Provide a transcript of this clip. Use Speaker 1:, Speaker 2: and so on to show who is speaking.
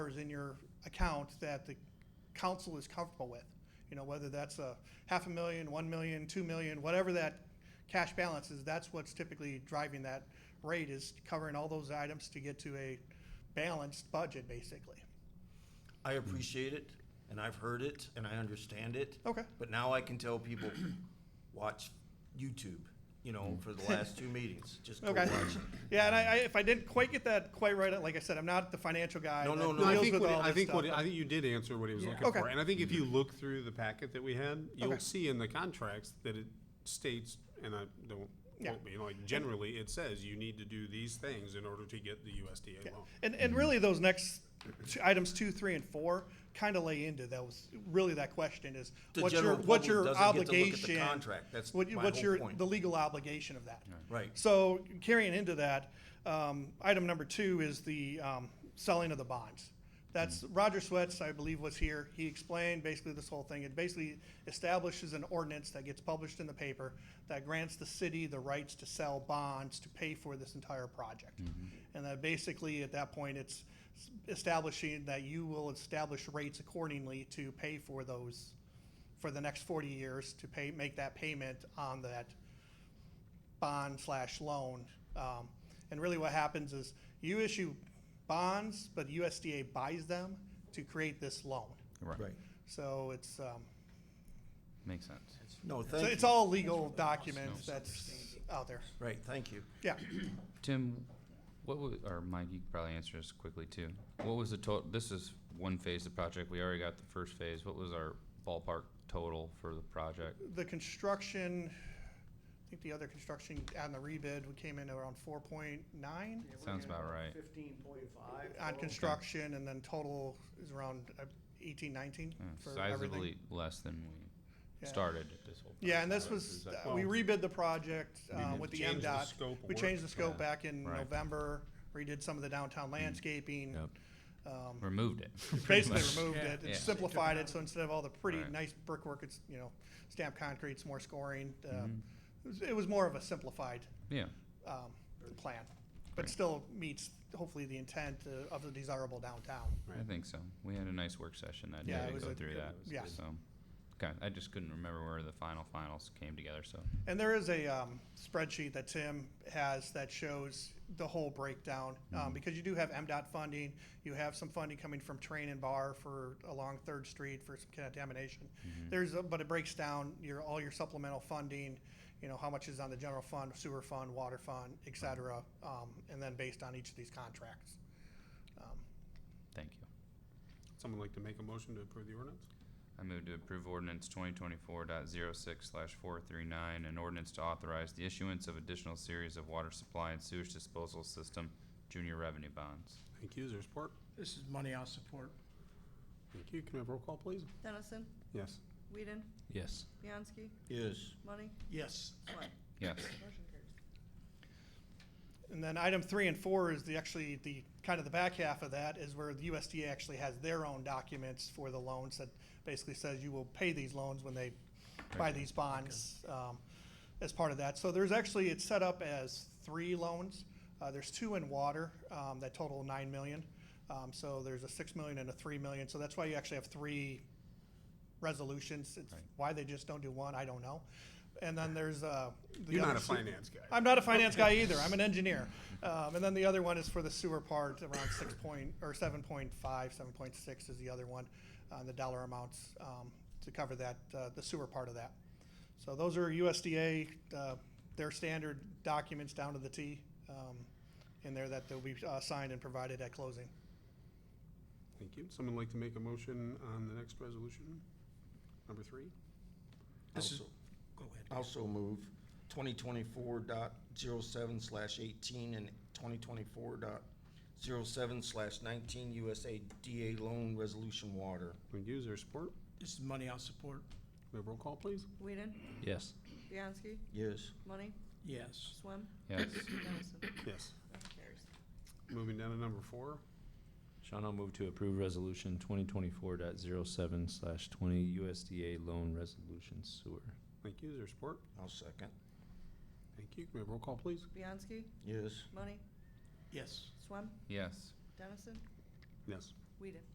Speaker 1: dollars in your account that the council is comfortable with. You know, whether that's a half a million, one million, two million, whatever that cash balance is, that's what's typically driving that rate is covering all those items to get to a balanced budget, basically.
Speaker 2: I appreciate it, and I've heard it, and I understand it.
Speaker 1: Okay.
Speaker 2: But now I can tell people, watch YouTube, you know, for the last two meetings, just go
Speaker 1: Okay.
Speaker 2: watch.
Speaker 1: Yeah, and I, I, if I didn't quite get that quite right, like I said, I'm not the financial guy.
Speaker 2: No,
Speaker 1: that
Speaker 2: no, no.
Speaker 1: deals
Speaker 2: I
Speaker 3: I
Speaker 1: with
Speaker 3: think, what,
Speaker 1: all
Speaker 3: I
Speaker 1: this
Speaker 3: think what
Speaker 1: stuff,
Speaker 3: I think you did answer what he was looking
Speaker 1: Okay.
Speaker 3: for, and I think if you look through the packet that we had, you'll
Speaker 1: Okay.
Speaker 3: see in the contracts that it states, and I don't
Speaker 1: Yeah.
Speaker 3: quote me, like generally it says you need to do these things in order to get the USDA loan.
Speaker 1: And, and really, those next two, items two, three, and four kind of lay into that was really that question is
Speaker 2: The
Speaker 1: what's your
Speaker 2: general
Speaker 1: what's
Speaker 2: public
Speaker 1: your
Speaker 2: doesn't get to look at the
Speaker 1: obligation?
Speaker 2: contract. That's
Speaker 1: what you-
Speaker 2: my
Speaker 1: what's
Speaker 2: whole
Speaker 1: your
Speaker 2: point.
Speaker 1: the legal obligation of that.
Speaker 2: Right.
Speaker 1: So carrying into that, um, item number two is the um, selling of the bonds. That's Roger Swets, I believe, was here. He explained basically this whole thing. It basically establishes an ordinance that gets published in the paper that grants the city the rights to sell bonds to pay for this entire project. And that basically, at that point, it's establishing that you will establish rates accordingly to pay for those, for the next forty years, to pay, make that payment on that bond slash loan. Um, and really what happens is you issue bonds, but USDA buys them to create this loan.
Speaker 4: Right.
Speaker 2: Right.
Speaker 1: So it's, um,
Speaker 4: Makes sense.
Speaker 2: No,
Speaker 1: so
Speaker 2: thank
Speaker 1: it's
Speaker 2: you.
Speaker 1: all legal documents that's out there.
Speaker 2: Right, thank you.
Speaker 1: Yeah.
Speaker 4: Tim, what was, or Mike, you could probably answer this quickly too. What was the total, this is one phase of the project, we already got the first phase. What was our ballpark total for the project?
Speaker 1: The construction, I think the other construction on the rebid, we came in around four point nine
Speaker 4: Sounds about right.
Speaker 5: Fifteen point five.
Speaker 1: on construction and then total is around uh, eighteen, nineteen
Speaker 4: Uh,
Speaker 1: for everything.
Speaker 4: Sizably less than we
Speaker 1: Yeah.
Speaker 4: started at this whole.
Speaker 1: Yeah, and this
Speaker 4: project.
Speaker 1: was,
Speaker 4: Is that-
Speaker 1: uh, we rebid the project, uh,
Speaker 4: didn't
Speaker 1: with the MDOT.
Speaker 3: Change the scope of
Speaker 1: We
Speaker 3: work.
Speaker 1: changed the scope
Speaker 4: Yeah.
Speaker 1: back in
Speaker 4: Right. Mm.
Speaker 1: November, redid some of the downtown landscaping,
Speaker 4: Yep.
Speaker 1: um,
Speaker 4: Removed it. pretty
Speaker 1: basically
Speaker 4: much.
Speaker 1: removed
Speaker 3: Yeah.
Speaker 1: it,
Speaker 4: Yeah.
Speaker 1: it simplified it, so instead of all the pretty
Speaker 4: Right.
Speaker 1: nice brickwork, it's, you know, stamped concrete, it's more scoring. uh,
Speaker 4: Mm-hmm.
Speaker 1: It was- it was more of a simplified,
Speaker 4: Yeah,
Speaker 1: um, plan, but
Speaker 4: Great.
Speaker 1: still meets hopefully the intent uh, of the desirable downtown.
Speaker 4: I think so. We had a nice work session that
Speaker 1: Yeah,
Speaker 4: day
Speaker 1: it
Speaker 4: to
Speaker 1: was
Speaker 4: go
Speaker 1: a-
Speaker 4: through that,
Speaker 1: yeah.
Speaker 4: so. Okay, I just couldn't remember where the final finals came together, so.
Speaker 1: And there is a um, spreadsheet that Tim has that shows the whole breakdown, um, because you do have MDOT funding, you have some funding coming from Train and Bar for, along Third Street for some contamination. There's, a- but it breaks down your, all your supplemental funding, you know, how much is on the general fund, sewer fund, water fund, et cetera, um, and then based on each of these contracts.
Speaker 4: Thank you.
Speaker 3: Someone like to make a motion to approve the ordinance?
Speaker 4: I move to approve ordinance twenty twenty-four dot zero six slash four three nine, an ordinance to authorize the issuance of additional series of water supply and sewage disposal system junior revenue bonds.
Speaker 3: Thank you, is there support?
Speaker 5: This is money I'll support.
Speaker 3: Thank you, can we have roll call, please?
Speaker 6: Dennison,
Speaker 3: Yes.
Speaker 6: Whedon,
Speaker 4: Yes.
Speaker 6: Bianski,
Speaker 2: Yes.
Speaker 6: Money,
Speaker 5: Yes.
Speaker 6: Swett.
Speaker 4: Yes.
Speaker 6: Motion carries.
Speaker 1: And then item three and four is the, actually, the, kind of the back half of that is where the USDA actually has their own documents for the loans that basically says you will pay these loans when they buy these bonds, um, as part of that. So there's actually, it's set up as three loans. Uh, there's two in water, um, that total nine million. Um, so there's a six million and a three million, so that's why you actually have three resolutions. It's why they just don't do one, I don't know. And then there's, uh. the
Speaker 3: You're not
Speaker 1: other
Speaker 3: a
Speaker 1: su-
Speaker 3: finance guy.
Speaker 1: I'm not a finance guy either. I'm an engineer. Um, and then the other one is for the sewer part, around six point, or seven point five, seven point six is the other one, uh, the dollar amounts, um, to cover that, uh, the sewer part of that. So those are USDA, uh, their standard documents down to the T, um, in there that they'll be, uh, signed and provided at closing.
Speaker 3: Thank you, someone like to make a motion on the next resolution? Number three?
Speaker 2: This is,
Speaker 5: Go ahead.
Speaker 2: also move twenty twenty-four dot zero seven slash eighteen and twenty twenty-four dot zero seven slash nineteen USA DA loan resolution water.
Speaker 3: Thank you, is there support?
Speaker 5: This is money I'll support.
Speaker 3: We have roll call, please?
Speaker 6: Whedon,
Speaker 4: Yes.
Speaker 6: Bianski,
Speaker 2: Yes.
Speaker 6: Money,
Speaker 5: Yes.
Speaker 6: Swem,
Speaker 4: Yes.
Speaker 6: Dennison.
Speaker 3: Yes.
Speaker 6: Motion carries.
Speaker 3: Moving down to number four,
Speaker 7: Sean, I'll move to approve resolution twenty twenty-four dot zero seven slash twenty USDA loan resolution sewer.
Speaker 3: thank you, is there support?
Speaker 2: I'll second.
Speaker 3: Thank you, can we have roll call, please?
Speaker 6: Bianski,
Speaker 2: Yes.
Speaker 6: Money,
Speaker 5: Yes.
Speaker 6: Swem,
Speaker 4: Yes.
Speaker 6: Dennison,
Speaker 3: Yes.
Speaker 6: Whedon.